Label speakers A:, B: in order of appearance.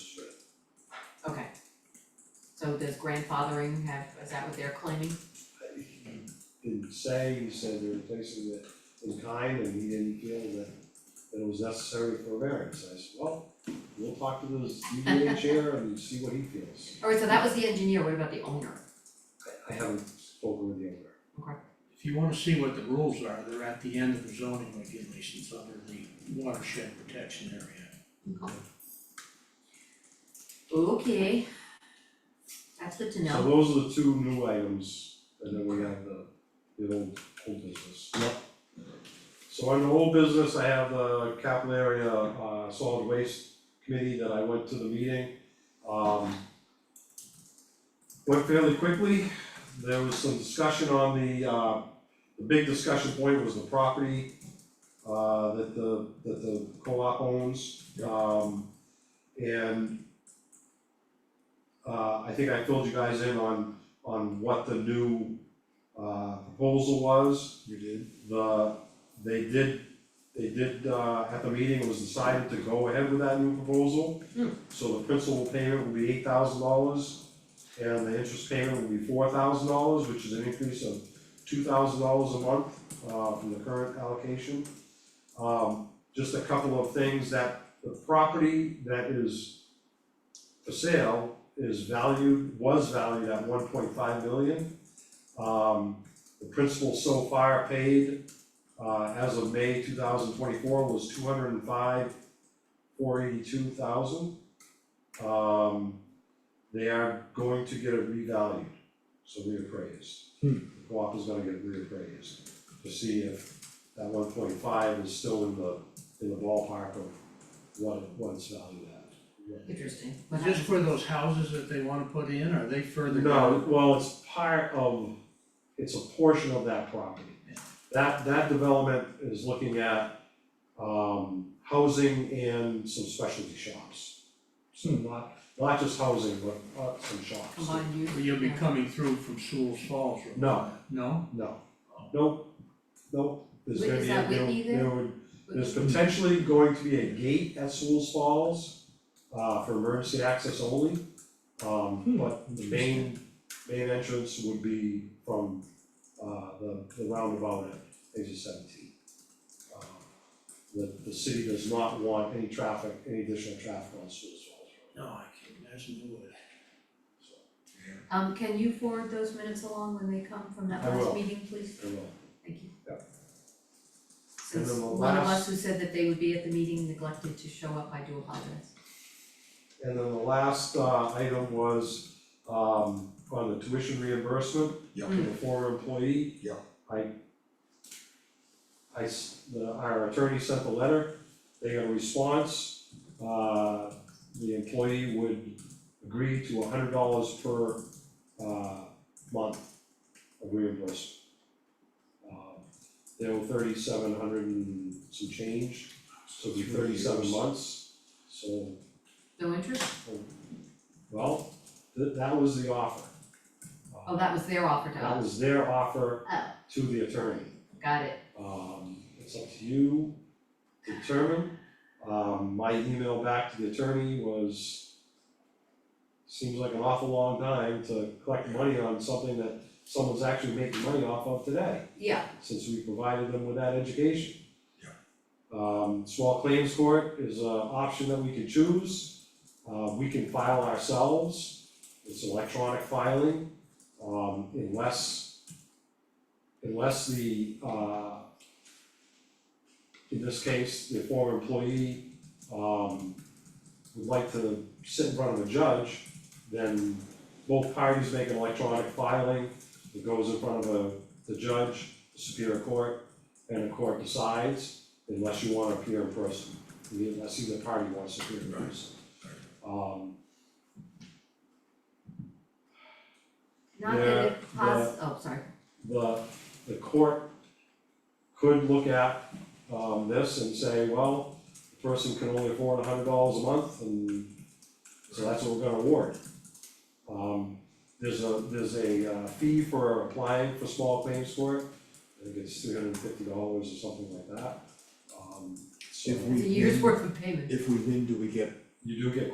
A: So does grandfathering have, is that what they're claiming?
B: He Didn't say, he said there were places that in kind and he didn't feel that that it was necessary for a variance, I said, well, we'll talk to the ZBA chair and see what he feels.
A: Alright, so that was the engineer, what about the owner?
B: I I haven't spoken with the owner.
C: If you wanna see what the rules are, they're at the end of the zoning regulations under the watershed protection area.
A: Okay. That's good to
B: So
A: know.
B: those are the two new items, and then we have the the old old business. So on the old business, I have the capital area uh solid waste committee that I went to the meeting. Um. Went fairly quickly, there was some discussion on the uh, the big discussion point was the property uh that the that the co-op owns. Um and uh I think I filled you guys in on on what the new uh proposal was
D: You did?
B: the, they did, they did, uh, at the meeting, it was decided to go ahead with that new proposal.
A: Hmm.
B: So the principal payment will be eight thousand dollars, and the interest payment will be four thousand dollars, which is an increase of two thousand dollars a month, uh, from the current allocation. Um, just a couple of things, that the property that is for sale is valued, was valued at one point five million. Um, the principal so far paid, uh, as of May two thousand twenty-four was two hundred and five, four eighty-two thousand. Um, they are going to get it revalued, so reappraised.
C: Hmm.
B: The Co-op is gonna get it reappraised to see if that one point five is still in the, in the ballpark of what, it- what it's valued at.
A: Interesting. What
C: Is this
A: happened?
C: for those houses that they wanna put in, or are they further
B: No,
C: down?
B: well, it's part of, it's a portion of that property.
C: Yeah.
B: That, that development is looking at, um, housing and some specialty shops. So not, not just housing, but, uh, some shops.
A: Combined
C: Or
A: use?
C: You'll be
A: Yeah.
C: coming through from Sewell's Falls, right?
B: No.
C: No?
B: No, nope, nope, there's
A: Wait,
B: gonna
A: is
B: be,
A: that
B: a- there,
A: Whitney there?
B: there would, there's potentially going to be a gate at Sewell's Falls, uh, for emergency access only. Um, but the main, main entrance would be from, uh, the, the roundabout at exit seventeen. Um, The, the city does not want any traffic, any additional traffic on Sewell's Falls Road,
C: No, I can't imagine they would.
B: so,
A: Um, can you forward those minutes along when they come from that
B: I
A: last
B: will.
A: meeting, please?
B: I will.
A: Thank you.
B: Yep. And
A: Since
B: then the
A: one of
B: last-
A: us who said that they would be at the meeting neglected to show up, I do apologize.
B: And then the last uh item was um on the tuition reimbursement
D: Yeah.
B: to the former employee.
D: Yeah.
B: I I s- the our attorney sent the letter, they got a response, uh the employee would agree to hundred dollars per uh month of reimbursement. Um they were thirty-seven hundred and some change, so it'd be
D: Three
B: thirty-seven
D: years.
B: months, so
A: No interest?
B: well, th- that was the offer. Um,
A: Oh, that was their offer to
B: That
A: us.
B: was their offer
A: Oh.
B: to the attorney.
A: Got it.
B: Um, it's up to you, to determine. Um, my email back to the attorney was, seems like an awful long time to collect money on something that someone's actually making money off of today,
A: Yeah,
B: since we provided them with that education.
D: Yeah.
B: Um, small claims court is an option that we can choose. Uh, we can file ourselves, it's electronic filing, um, unless, unless the, uh, in this case, the former employee, um, would like to sit in front of a judge, then both parties make an electronic filing, it goes in front of a, the judge, the superior court, and the court decides, unless you wanna appear in person, unless either party wants to appear in
D: Right,
B: person. Um,
A: not that it pos- oh, sorry.
B: the, the court could look at, um, this and say, well, the person can only afford a hundred dollars a month, and so that's what we're gonna award. Um, there's a, there's a uh, fee for applying for small claims court, I think it's three hundred and fifty dollars or something like that. Um, so
D: If we-
B: Mm-hmm.
A: It's a year's worth of payments.
D: If we win, do we get
B: you do get